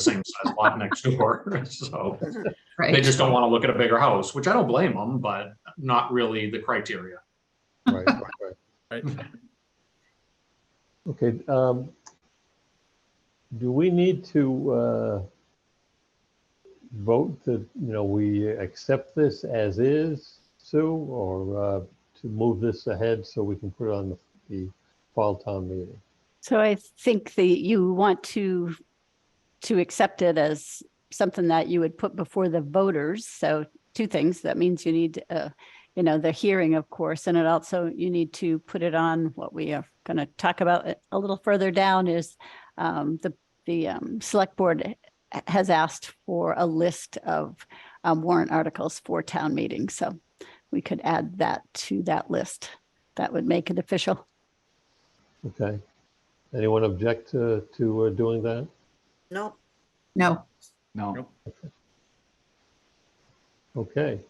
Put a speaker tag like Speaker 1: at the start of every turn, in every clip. Speaker 1: same size lot next door, so they
Speaker 2: Right.
Speaker 1: just don't want to look at a bigger house, which I don't blame them, but not really the criteria.
Speaker 3: Right, right, right.
Speaker 4: Right.
Speaker 3: Okay, um, do we need to, uh, vote that, you know, we accept this as is, Sue, or, uh, to move this ahead so we can put it on the, the fall town meeting?
Speaker 5: So I think the, you want to, to accept it as something that you would put before the voters. So two things, that means you need, uh, you know, the hearing, of course, and it also, you need to put it on what we are going to talk about a- a little further down is um, the, the um, select board h- has asked for a list of um, warrant articles for town meeting. So we could add that to that list. That would make it official.
Speaker 3: Okay? Anyone object to, to uh, doing that?
Speaker 6: Nope.
Speaker 2: No,
Speaker 4: Nope.
Speaker 7: No,
Speaker 3: Okay.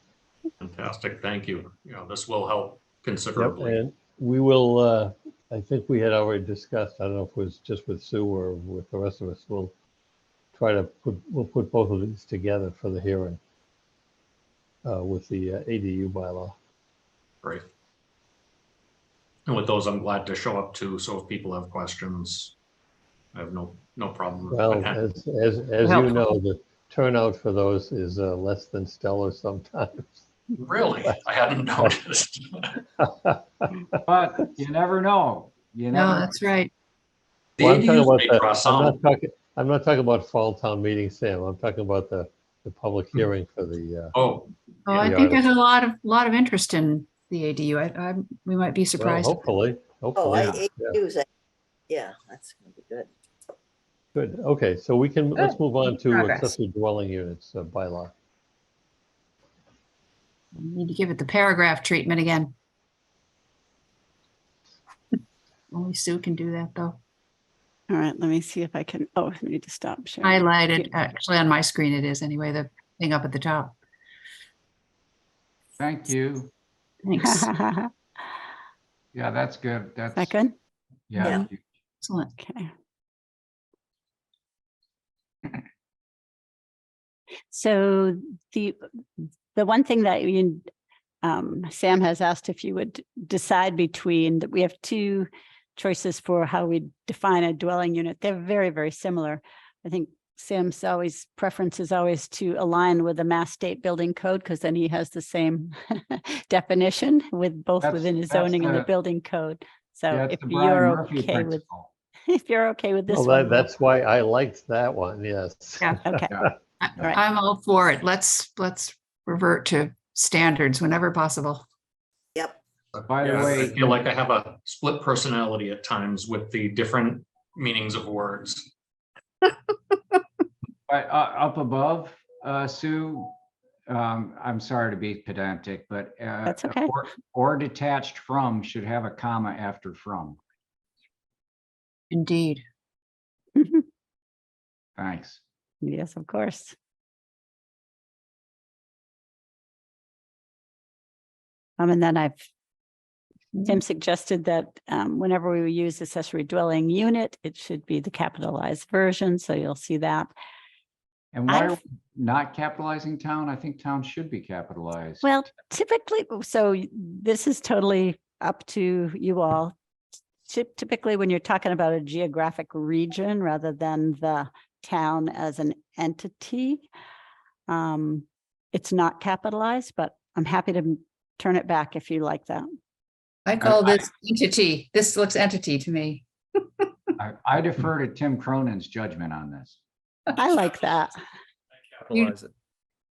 Speaker 1: Fantastic, thank you. You know, this will help
Speaker 3: Yep,
Speaker 1: considerably.
Speaker 3: and we will, uh, I think we had already discussed, I don't know if it was just with Sue or with the rest of us, we'll try to put, we'll put both of these together for the hearing uh, with the uh, ADU bylaw.
Speaker 1: Great. And with those, I'm glad to show up too, so if people have questions, I have no, no problem. with
Speaker 3: Well, uh,
Speaker 1: that.
Speaker 3: as, as, as you know, the turnout for those is uh, less than stellar sometimes.
Speaker 1: Really? I hadn't noticed.
Speaker 7: but you never know. You
Speaker 2: no,
Speaker 7: never,
Speaker 2: that's right.
Speaker 1: The
Speaker 3: Well, I'm talking
Speaker 1: ADUs
Speaker 3: about
Speaker 1: may
Speaker 3: the-
Speaker 1: draw
Speaker 3: I'm
Speaker 1: some,
Speaker 3: not talking, I'm not talking about fall town meeting, Sam. I'm talking about the, the public hearing for the, uh,
Speaker 1: oh,
Speaker 2: Oh,
Speaker 1: Yeah,
Speaker 2: I
Speaker 3: the
Speaker 2: think there's a lot of, lot of interest in the ADU. I, I, we might be
Speaker 3: well,
Speaker 2: surprised.
Speaker 3: hopefully,
Speaker 6: Oh,
Speaker 3: hopefully.
Speaker 6: I ate
Speaker 3: yeah.
Speaker 6: those. Yeah, that's gonna be good.
Speaker 3: Good, okay, so we can, let's move on to
Speaker 2: Progress.
Speaker 3: accessory dwelling units uh, bylaw.
Speaker 2: We Need to give it the paragraph treatment again. Only Sue can do that, though.
Speaker 5: All right, let me see if I can, oh, I need to stop sharing.
Speaker 2: Highlighted, actually on my screen it is anyway, the thing up at the top.
Speaker 7: thank you.
Speaker 2: Thanks.
Speaker 7: Yeah, that's good. That's,
Speaker 5: That good?
Speaker 7: yeah.
Speaker 2: Excellent.
Speaker 5: Okay. So the, the one thing that you, um, Sam has asked if you would decide between, that we have two choices for how we define a dwelling unit. They're very, very similar. I think Sam's always preference is always to align with the Mass State Building Code because then he has the same definition with both
Speaker 7: That's-
Speaker 5: within his
Speaker 7: that's
Speaker 5: zoning and the
Speaker 7: the-
Speaker 5: building code. So
Speaker 7: Yeah,
Speaker 5: if
Speaker 7: it's the Brian
Speaker 5: you're
Speaker 7: Murphy
Speaker 5: okay with
Speaker 7: principle.
Speaker 5: if you're okay with this
Speaker 3: Well, Oh, that,
Speaker 5: one.
Speaker 3: that's why I liked that one, yes.
Speaker 2: Yeah.
Speaker 5: Okay,
Speaker 2: I-
Speaker 5: Right.
Speaker 2: I'm all for it. Let's, let's revert to standards whenever possible.
Speaker 6: Yep.
Speaker 7: By the
Speaker 1: Yeah, I
Speaker 7: way,
Speaker 1: feel like I have a split personality at times with the different meanings of words.
Speaker 7: but, uh, up above, uh, Sue, um, I'm sorry to be pedantic, but. uh,
Speaker 5: That's okay.
Speaker 7: or- Or detached from should have a comma after from.
Speaker 2: Indeed.
Speaker 7: Thanks.
Speaker 5: yes, of course. Um, and then I've,
Speaker 3: Mm-hmm.
Speaker 5: Tim suggested that um, whenever we use accessory dwelling unit, it should be the capitalized version, so you'll see that.
Speaker 7: And why
Speaker 5: I've-
Speaker 7: are we not capitalizing town? I think town should be capitalized.
Speaker 5: Well, typically, so y- this is totally up to you all. Typ- Typically, when you're talking about a geographic region rather than the town as an entity, um, it's not capitalized, but I'm happy to m- turn it back if you like that.
Speaker 2: I call this entity. This looks entity to me.
Speaker 7: I- I defer to Tim Cronin's judgment on this.
Speaker 5: I like that.
Speaker 4: Capitalize it.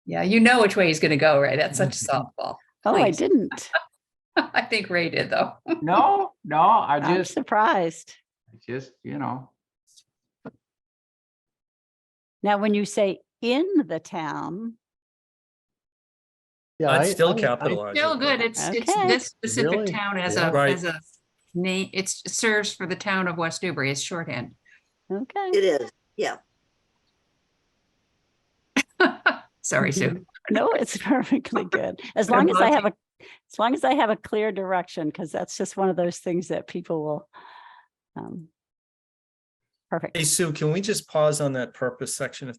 Speaker 2: Yeah, you know which way he's going to go, right? That's such a softball.
Speaker 5: Oh, I
Speaker 2: Please.
Speaker 5: didn't.
Speaker 2: I think Ray did though.
Speaker 7: No, no, I
Speaker 5: I'm
Speaker 7: just,
Speaker 5: surprised.
Speaker 7: just, you know,
Speaker 5: Now, when you say in the town,
Speaker 3: Yeah, I-
Speaker 4: I'd
Speaker 3: I-
Speaker 4: still
Speaker 3: I-
Speaker 4: capitalize.
Speaker 2: Still
Speaker 4: it.
Speaker 2: good. It's, it's
Speaker 5: Okay.
Speaker 2: this specific
Speaker 3: Really?
Speaker 2: town as
Speaker 3: Yeah.
Speaker 2: a,
Speaker 4: Right.
Speaker 2: as a name, it's it serves for the town of West Newbury. It's shorthand.
Speaker 5: okay,
Speaker 6: It is.
Speaker 2: Sorry,
Speaker 3: Mm-hmm.
Speaker 2: Sue.
Speaker 5: no, it's perfectly good. As
Speaker 2: I'm
Speaker 5: long as I have a, as long as I have a clear direction, because that's just one of those things that people will um, Perfect.
Speaker 4: Hey, Sue, can we just pause on that purpose section if